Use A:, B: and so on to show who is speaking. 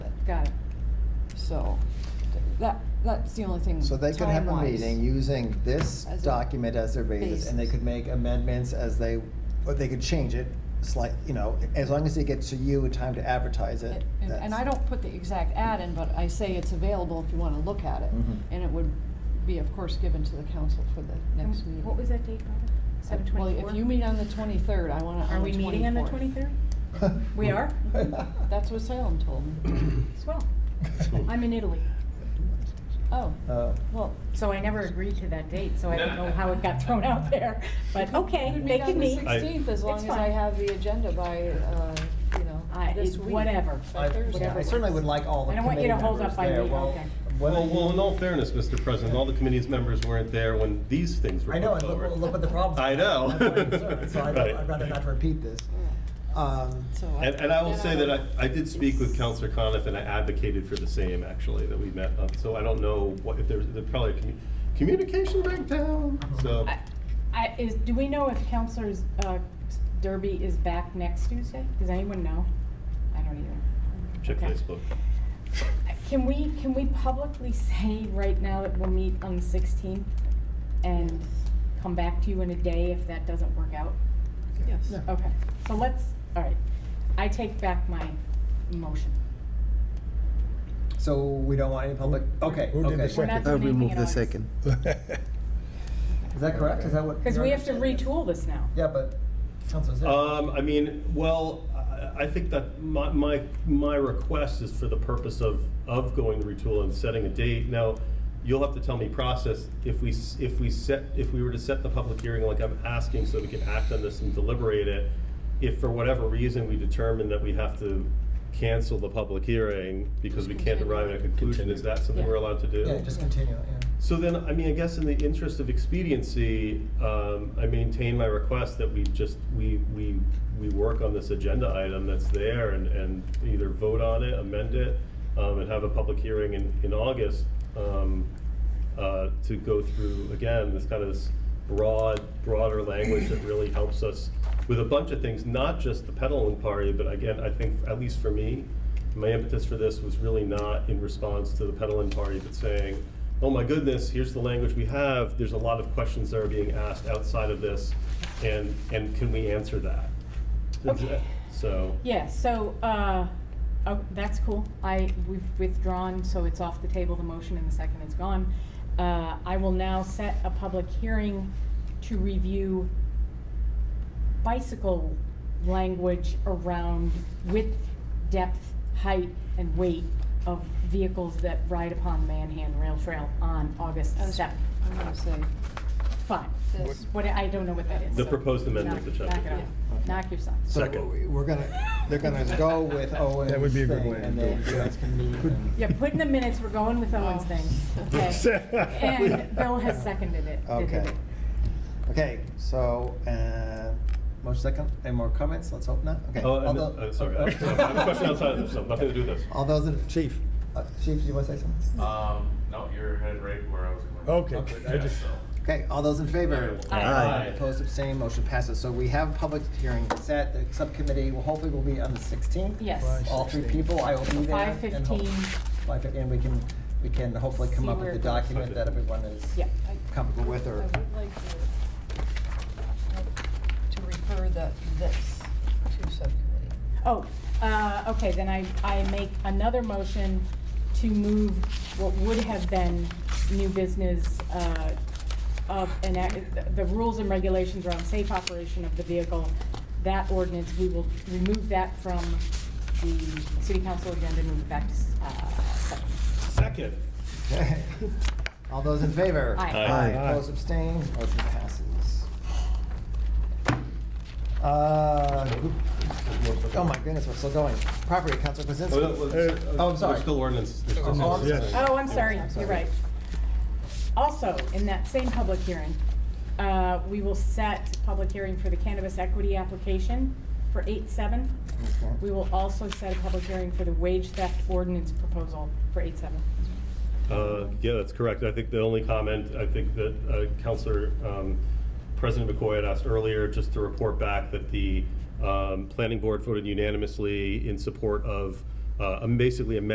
A: got it. So, th- that, that's the only thing.
B: So they could have a
A: time-wise.
B: meeting using this
A: As a
B: document as their basis, and they
A: basis.
B: could make amendments as they, or they could change it slight, you know, as long as it gets to you in time to advertise it.
A: And- And
B: that's-
A: I don't put the exact ad in, but I say it's available if you wanna look at it.
B: Mhm.
A: And it would be, of course, given to the council for the next meeting.
C: What was that date, Barbara? Seven
A: Well,
C: twenty-four?
A: if you meet on the twenty-third, I wanna, on
C: Are
A: the
C: we meeting on the
A: 24th.
C: twenty-third? We are?
A: That's what Salem told me.
C: Swell. I'm in Italy.
A: Oh,
B: Uh,
A: well,
C: So I never agreed to that date, so I don't know how it got thrown out there, but okay,
A: we
C: they
A: meet on the
C: can meet.
D: I-
A: sixteenth, as long
C: It's
A: as I
C: fine.
A: have the agenda by, uh, you know,
C: I-
A: this
C: it-
A: week.
C: whatever.
A: By
B: I-
A: Thursday.
B: yeah, I certainly would like all the
C: I don't want you
B: committee
C: to hold
B: members
C: up by
B: there,
C: me,
B: well.
C: okay.
B: whether
D: Well, well,
B: you-
D: in all fairness, Mr. President, all the committee's members weren't there when these things were
B: I know,
D: put
B: and look,
D: forward.
B: look what the problems.
D: I know.
B: are. That's my concern, So I'd,
D: Right.
B: I'd rather not repeat this. Um,
A: So
D: And, and I will
A: then
D: say that I, I did speak with Counselor Coniff and I advocated for the same, actually, that we met up. So I don't know what, if there's, there's probably a commu- communication breakdown, so.
C: I- I, is, do we know if Counselor uh, Derby is back next Tuesday? Does anyone know? I don't either.
D: Check
C: okay.
D: Facebook.
C: Uh, Can we, can we publicly say right now that we'll meet on the sixteenth and come back to you in a day if that doesn't work out?
A: Yes.
B: Yeah.
C: Okay, so let's, all right, I take back my motion.
B: So we don't want any public, okay,
E: Who did the
B: okay.
C: We're not doing
E: second?
F: I
C: anything
F: Uh, remove
C: in
F: the
C: August.
F: second.
B: Is that correct? Is that what?
C: Because
B: your
C: we have to
B: understanding is?
C: retool this now.
B: Yeah, but Councilor Zip.
D: Um, I mean, well, I, I think that my, my, my request is for the purpose of, of going to retool and setting a date. Now, you'll have to tell me process, if we, s- if we set, if we were to set the public hearing like I'm asking so we can act on this and deliberate it, if for whatever reason we determine that we have to cancel the public hearing because we can't arrive at a conclusion, is that something we're allowed to do?
B: Yeah, just continue, it, yeah.
D: So then, I mean, I guess in the interest of expediency, um, I maintain my request that we just, we, we, we work on this agenda item that's there and, and either vote on it, amend it, um, and have a public hearing in, in August, um, uh, to go through, again, this kind of this broad, broader language that really helps us with a bunch of things, not just the peddling party, but again, I think, at least for me, my impetus for this was really not in response to the peddling party, but saying, oh my goodness, here's the language we have, there's a lot of questions that are being asked outside of this, and, and can we answer that?
C: Okay.
D: So,
C: Yeah, so, uh, oh, that's cool. I, we've withdrawn, so it's off the table, the motion and the second is gone. Uh, I will now set a public hearing to review bicycle language around width, depth, height, and weight of vehicles that ride upon Manhan Rail Trail on August
A: As-
C: seventh.
A: I'm gonna say
C: Fine.
A: this.
C: What, I don't know what that is.
D: The
C: so
D: proposed amendment
C: knock-
D: to chapter.
C: Knock it off. Knock yourself.
B: So
D: Second.
B: we- We're gonna, they're gonna go with Owen's
E: That would be a good
B: thing,
E: way to
B: and
E: do
B: then
E: it.
B: you guys can meet and-
C: Yeah, put in the minutes, we're going with Owen's thing. Okay. And Bill has seconded it.
B: Okay. Okay, so, uh, motion second, any more comments? Let's hope not, okay.
D: oh, and,
B: Although-
D: uh, sorry, I have a question outside of this, so nothing to do with this.
B: All those in,
E: Chief.
B: uh, Chief, Uh, do you wanna say something?
G: Um, no, you're headed right where I was going.
E: Okay.
B: Okay,
E: I just,
B: Okay, all those in favor?
C: Aye.
E: Aye.
B: Opposed, abstained, motion passes. So we have a public hearing set, the subcommittee will hopefully will be on the sixteenth.
C: Yes.
B: All three people, I will be there.
C: Five
B: and hope-
C: fifteen,
B: Five fifteen, and we can, we can hopefully come
C: See
B: up
C: where
B: with
C: it
B: the
C: goes.
B: document that everyone is
C: yeah.
A: I-
B: comfortable with
A: I
B: or
A: would like to, uh, to refer the, this to subcommittee.
C: Oh, uh, okay, then I, I make another motion to move what would have been new business, uh, of, and act- the rules and regulations around safe operation of the vehicle, that ordinance, we will remove that from the city council agenda, move it back to, s- uh, second.
D: Second.
B: Okay. All those in favor?
C: Aye.
D: Aye.
B: Aye.
E: Aye.
B: Opposed, abstained, motion passes. Uh, group- Oh my goodness, we're still going. Property, Council
D: Oh, no,
B: Krasinski.
D: well,
B: Oh, I'm sorry.
D: There's still ordinance. there's still
B: Oh, I'm
D: ordinance.
B: sorry.
C: Oh, I'm sorry, you're right. Also, in that same public hearing, uh, we will set public hearing for the cannabis equity application for eight seven.
B: Okay.
C: We will also set a public hearing for the wage theft ordinance proposal for eight seven.
D: Uh, Yeah, that's correct. I think the only comment, I think that uh, Counselor, um, President McCoy had asked earlier, just to report back that the um, Planning Board voted unanimously in support of uh, basically amending